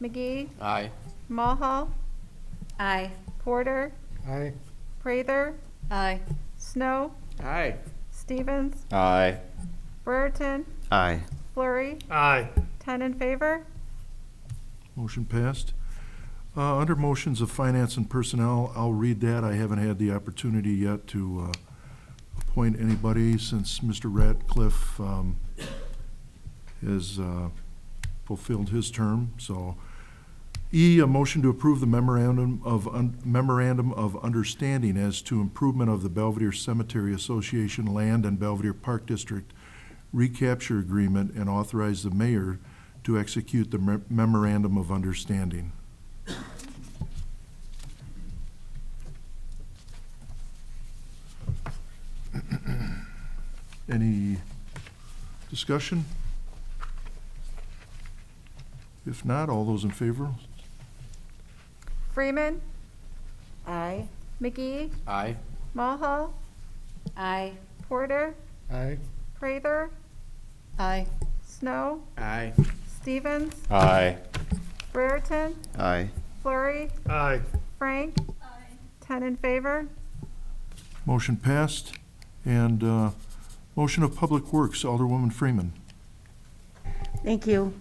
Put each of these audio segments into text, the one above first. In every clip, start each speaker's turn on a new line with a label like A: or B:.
A: McGee,
B: Aye.
A: Mulhall,
C: Aye.
A: Porter,
D: Aye.
A: Prather,
C: Aye.
A: Snow,
B: Aye.
A: Stevens,
E: Aye.
A: Brereton,
E: Aye.
A: Flurry,
D: Aye.
A: ten in favor.
F: Motion passed. Uh, Under motions of finance and personnel, I'll read that. I haven't had the opportunity yet to uh, appoint anybody since Mr. Ratcliffe um, has uh, fulfilled his term, so. E, a motion to approve the memorandum of, un- memorandum of understanding as to improvement of the Belvedere Cemetery Association land and Belvedere Park District recapture agreement and authorize the mayor to execute the mer- memorandum of understanding. Any discussion? If not, all those in favor?
A: Freeman,
C: Aye.
A: McGee,
B: Aye.
A: Mulhall,
C: Aye.
A: Porter,
D: Aye.
A: Prather,
C: Aye.
A: Snow,
B: Aye.
A: Stevens,
E: Aye.
A: Brereton,
E: Aye.
A: Flurry,
D: Aye.
A: Frank, ten in favor.
F: Motion passed. And uh, motion of Public Works, Alderwoman Freeman.
G: Thank you.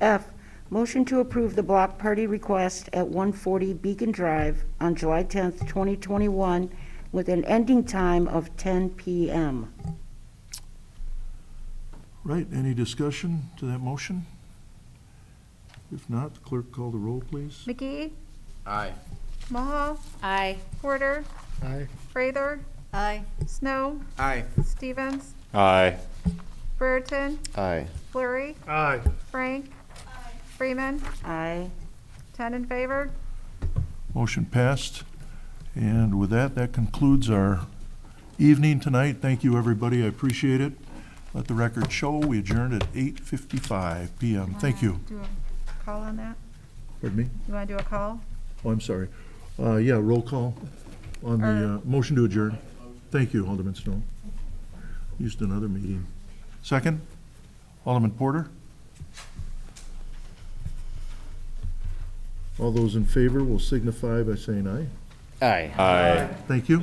G: F, motion to approve the block party request at 140 Beacon Drive on July 10th, 2021, with an ending time of 10 PM.
F: Right, any discussion to that motion? If not, clerk call the roll, please.
A: McGee,
B: Aye.
A: Mulhall,
C: Aye.
A: Porter,
D: Aye.
A: Prather,
C: Aye.
A: Snow,
B: Aye.
A: Stevens,
E: Aye.
A: Brereton,
E: Aye.
A: Flurry,
D: Aye.
A: Frank, Freeman,
G: Aye.
A: ten in favor.
F: Motion passed. And with that, that concludes our evening tonight. Thank you, everybody. I appreciate it. Let the record show, we adjourned at 8:55 PM. Thank you.
A: Do a call on that?
F: Pardon me?
A: You want to do a call?
F: Oh, I'm sorry. Uh, Yeah, roll call on the, uh, motion to adjourn. Thank you, Alderman Snow. Used another meeting. Second, Alderman Porter? All those in favor will signify by saying aye.
E: Aye. Aye.
F: Thank you.